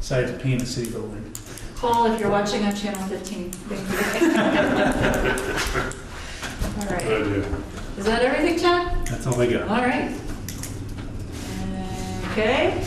Sorry to pee in the city building. Paul, if you're watching on Channel 15, thank you. All right. idea. Is that everything, Chad? That's all I got. All right. Okay.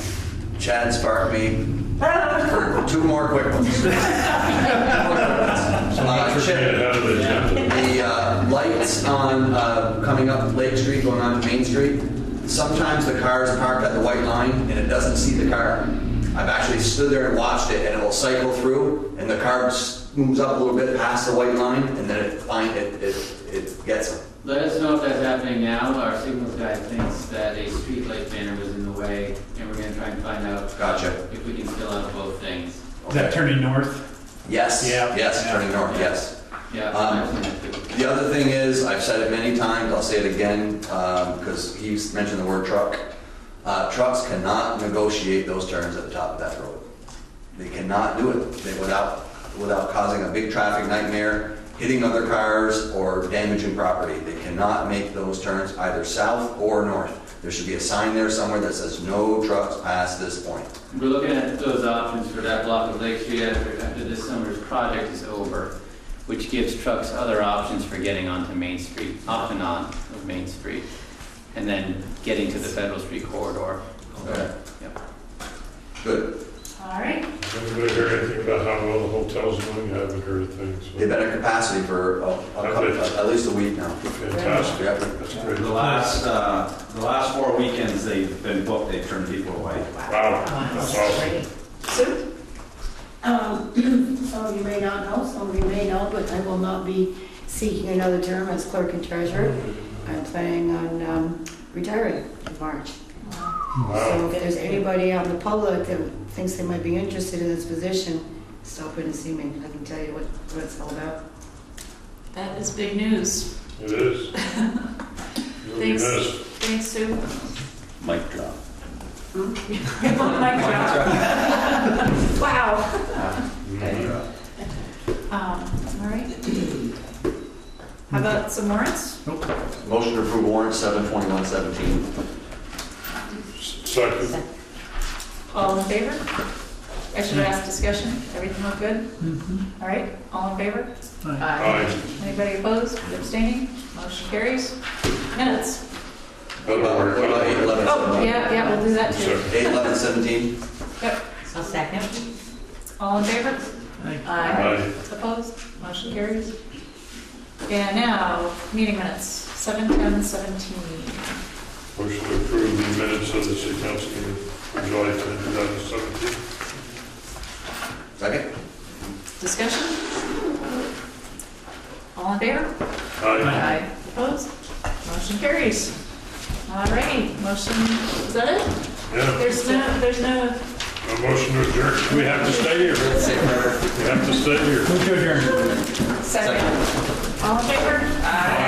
Chad sparked me for two more quick ones. Uh, Get it Chip, out of the agenda. the uh, lights on, uh, coming up Lake Street, going on to Main Street, sometimes the car is parked at the white line and it doesn't see the car. I've actually stood there and watched it and it'll cycle through and the car s- moves up a little bit past the white line and then it find, it, it, it gets them. Let us know if that's happening now. Our signals guy thinks that a streetlight banner was in the way, and we're gonna try and find out. Gotcha. If we can fill out both things. Is that turning north? Yes, Yeah. yes, turning north, yes. Yeah. Um, I've seen that too. The other thing is, I've said it many times, I'll say it again, because he's mentioned the word truck. Uh, Trucks cannot negotiate those turns at the top of that road. They cannot do it They- without, without causing a big traffic nightmare, hitting other cars, or damaging property. They cannot make those turns either south or north. There should be a sign there somewhere that says, "No trucks past this point." We're looking at those options for that block of Lake Street after, after this summer's project is over, which gives trucks other options for getting onto Main Street, off and on of Main Street, and then getting to the Federal Street corridor. Okay. Yep. Good. All right. Anybody heard anything about how well the hotel's doing? I haven't heard a thing, They've so been at capacity for a- a couple- at least a week now. fantastic. Yep. That's great. The last, uh, the last four weekends they've been booked, they've turned people away. Wow, that's awesome. Sue? Um, Some of you may not know, some of you may know, but I will not be seeking another term as clerk and treasurer. I'm planning on um, retiring in March. So Wow, if there's anybody out in the public that thinks they might be interested in this position, stop in and see me. I can tell you what, what it's all about. That is big news. it is. You'll be Thanks. missed. Thanks, Sue. Mic drop. Mic drop. Wow. Um, All right. How about some warrants? Motion to approve warrant seven twenty-one seventeen. Second, All in favor? I should ask discussion. Everything look good? All right, all in favor? Aye. aye. Anybody opposed, abstaining? Motion carries. Minutes. What about, what about eight eleven Oh, seventeen? yeah, yeah, we'll do that too. Second, Eight eleven seventeen? Yep. I'll second. All in favor? aye. Opposed? Motion carries. And now, meeting minutes, seven ten seventeen. Motion to approve the minutes of the city council meeting on July 10, 2017. Second? Discussion? All in favor? Aye. Aye. Opposed? Motion carries. All righty, motion, is that it? Yeah, There's no, there's no a motion to adjourn. Do we have to stay here? We have to stay here. Move to adjourn. second. All in favor? Aye.